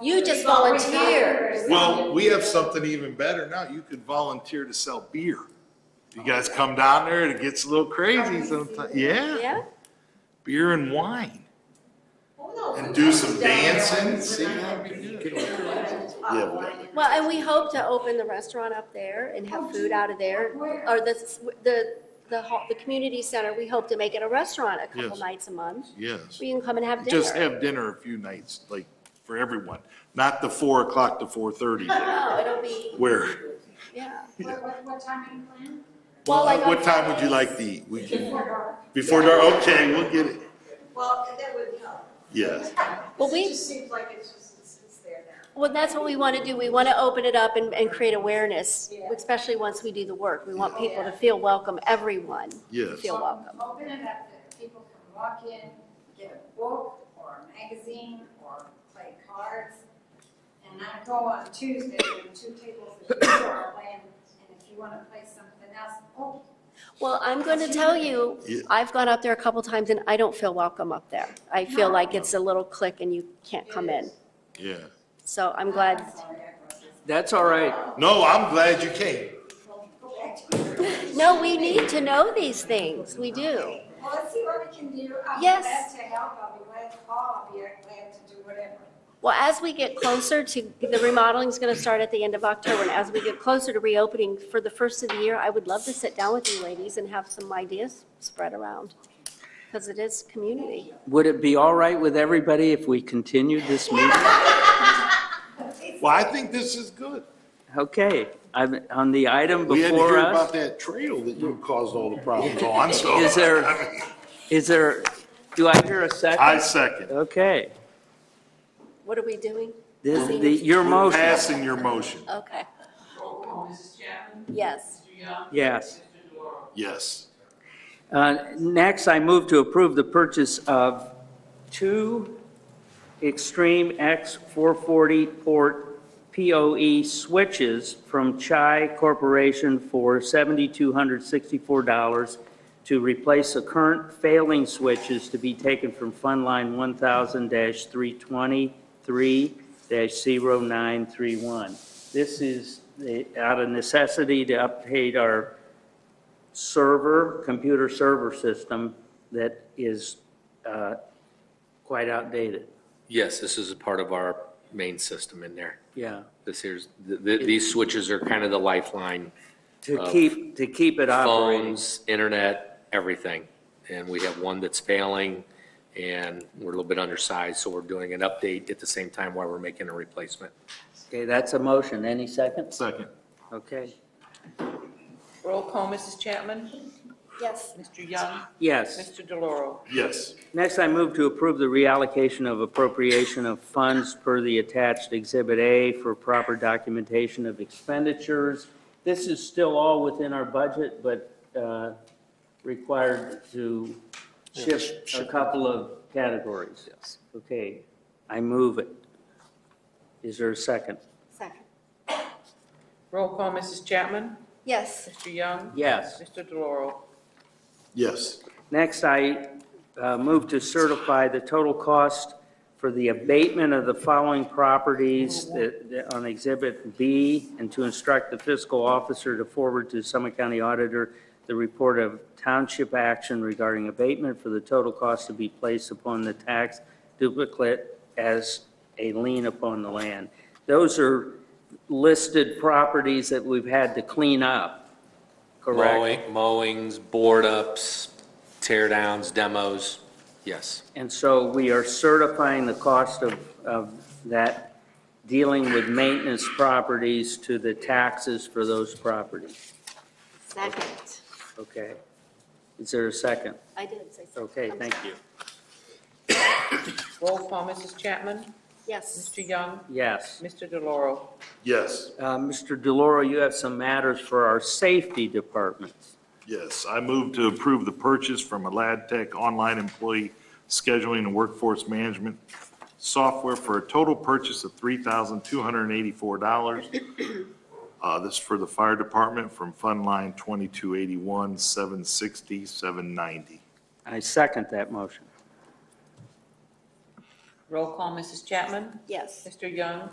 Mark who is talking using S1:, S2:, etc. S1: You just volunteered.
S2: Well, we have something even better now. You could volunteer to sell beer. You guys come down there, it gets a little crazy sometimes. Yeah,
S1: Yeah?
S2: beer and wine. And
S3: And
S2: do some dancing, see, that'd be good.
S3: Yeah. but-
S1: Well, and we hope to open the restaurant up there and have food out of there. Or the, the, the, hall- the community center, we hope to make it a restaurant a couple
S2: Yes.
S1: nights a month.
S2: Yes.
S1: We can come and have dinner.
S2: Just have dinner a few nights, like, for everyone, not the four o'clock to four thirty,
S1: No, Oh, it'll be,
S2: where,
S1: yeah.
S3: What, what, what time are you
S1: Well, like on
S2: what time would you
S1: Fridays.
S2: like to eat? We
S3: planning?
S2: can,
S3: Before dark.
S2: before dark, okay, we'll get it,
S4: Well, that would help.
S2: yes.
S1: Well, we-
S4: It just seems like it's just, it's it's there now.
S1: Well, that's what we want to do. We want to open it up and, and create awareness,
S4: Yeah.
S1: especially once we do the work. We want people to
S4: Yeah.
S1: feel welcome, everyone. to
S2: Yes.
S1: Feel welcome.
S3: Open it up that people can walk in, get a book or a magazine or play cards. And I go on Tuesday, there are two tables that you are playing, and if you wanna play something else, oh,
S1: Well, I'm going to tell you,
S2: Yeah.
S1: I've gone up there a couple times and I don't feel welcome up there. I feel like it's a little click and you can't come in.
S2: Yeah.
S1: So I'm glad.
S3: sorry, I brought this.
S5: That's all right.
S2: No, I'm glad you came.
S3: Well, go back to your-
S1: No, we need to know these things. We do.
S3: Well, let's see what we can do. I'll be
S1: Yes.
S3: glad to help, I'll be glad to call, I'll be glad to do whatever.
S1: Well, as we get closer to, the remodeling is going to start at the end of October, and as we get closer to reopening for the first of the year, I would love to sit down with you ladies and have some ideas spread around, because it is community.
S5: Would it be all right with everybody if we continued this meeting?
S2: Well, I think this is good.
S5: Okay, I'm, on the item
S2: We had to hear
S5: before
S2: about
S5: us,
S2: that trail that you caused all the problems on, so.
S5: Is there-
S2: I mean,
S5: is there, do I hear a
S2: I
S5: second?
S2: second.
S5: Okay,
S1: What are we doing?
S5: this, the, your
S2: We're
S5: motion,
S2: Passing your motion,
S1: Okay,
S6: Roll call, Mrs. Chapman?
S1: yes.
S6: Mr. Young?
S5: yes.
S6: Mr. Delora?
S2: yes.
S5: Uh, Next, I move to approve the purchase of two Extreme X440 port POE switches from Chai Corporation for $7,264 to replace the current failing switches to be taken from Fund Line 1000-323-0931. This is the- out of necessity to update our server, computer server system that is uh, quite outdated.
S7: Yes, this is a part of our main system in there.
S5: Yeah.
S7: This here's, th- th- these switches are kind of the lifeline.
S5: To
S7: Uh,
S5: keep, to keep it operating.
S7: Phones, internet, everything. And we have one that's failing and we're a little bit undersized, so we're doing an update at the same time while we're making a replacement.
S5: Okay, that's a motion. Any second?
S2: Second.
S5: Okay.
S6: Roll call, Mrs. Chapman?
S1: Yes.
S6: Mr. Young?
S5: Yes.
S6: Mr. Deloro?
S2: Yes.
S5: Next, I move to approve the reallocation of appropriation of funds per the attached Exhibit A for proper documentation of expenditures. This is still all within our budget, but uh, required to shift a couple of categories. Yes. Okay, I move it. Is there a second?
S1: Second.
S6: Roll call, Mrs. Chapman?
S1: Yes,
S6: Mr. Young?
S5: Yes.
S6: Mr. Deloro?
S2: Yes.
S5: Next, I uh, move to certify the total cost for the abatement of the following properties that- that on Exhibit B, and to instruct the fiscal officer to forward to Summit County Auditor the report of township action regarding abatement for the total cost to be placed upon the tax duplicate as a lien upon the land. Those are listed properties that we've had to clean up, correct?
S7: Mowing- Mowings, board ups, tear downs, demos, yes.
S5: And so we are certifying the cost of, of that, dealing with maintenance properties to the taxes for those properties.
S1: second.
S5: Okay. Is there a second?
S1: I did say second.
S5: Okay,
S1: I'm
S5: thank
S1: sorry.
S5: you.
S6: Roll call, Mrs. Chapman?
S1: Yes.
S6: Mr. Young?
S5: Yes.
S6: Mr. Deloro?
S2: Yes.
S5: Uh, Mr. DeLauro, you have some matters for our safety departments.
S2: Yes. I move to approve the purchase from Alad Tech Online Employee Scheduling and Workforce Management Software for a total purchase of $3,284. Uh, This is for the fire department from Fund Line 2281, 760, 790.
S5: I second that motion.
S6: Roll call, Mrs. Chapman?
S1: Yes.
S6: Mr. Young?